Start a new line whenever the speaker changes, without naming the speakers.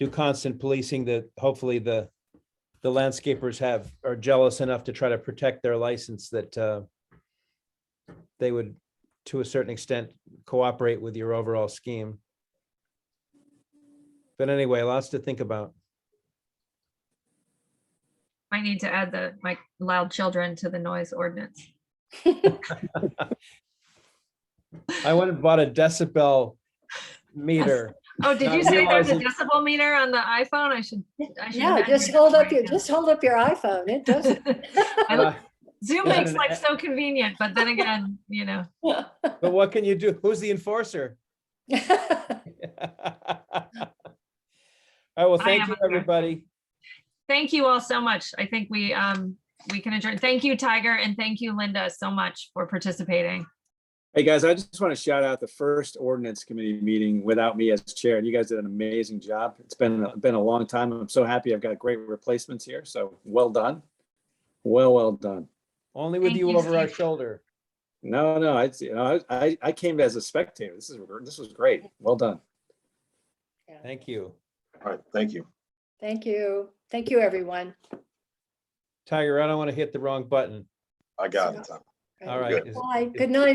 do constant policing that hopefully the, the landscapers have, are jealous enough to try to protect their license that uh, they would, to a certain extent, cooperate with your overall scheme. But anyway, lots to think about.
I need to add the, my loud children to the noise ordinance.
I went and bought a decibel meter.
Oh, did
Not
you say there's a
realizing-
decibel meter on the iPhone? I should. I should
Yeah,
add
just
it
hold up
right
your,
now.
just hold up your iPhone. It does.
I
Uh,
look- Zoom
Yeah.
makes life so convenient, but then again, you know,
Uh, But what can you do? Who's the enforcer?
Thank
All right, well,
I
thank
am
you,
up there.
everybody.
thank you all so much. I think we, um, we can adjourn. Thank you, Tiger, and thank you, Linda, so much for participating.
Hey, guys, I just want to shout out the first ordinance committee meeting without me as chair. You guys did an amazing job. It's been, been a long time. I'm so happy. I've got great replacements here. So well done. Well, well done.
Only with
Thank
you
you,
over our
Steve.
shoulder.
No, no, I, you know, I, I came as a spectator. This is, this was great. Well done.
Thank you.
All right, thank you.
you. Thank you, everyone.
Tiger, I don't want to hit the wrong button.
I got it, Tom.
All
Good.
right. is-
Bye. Good night.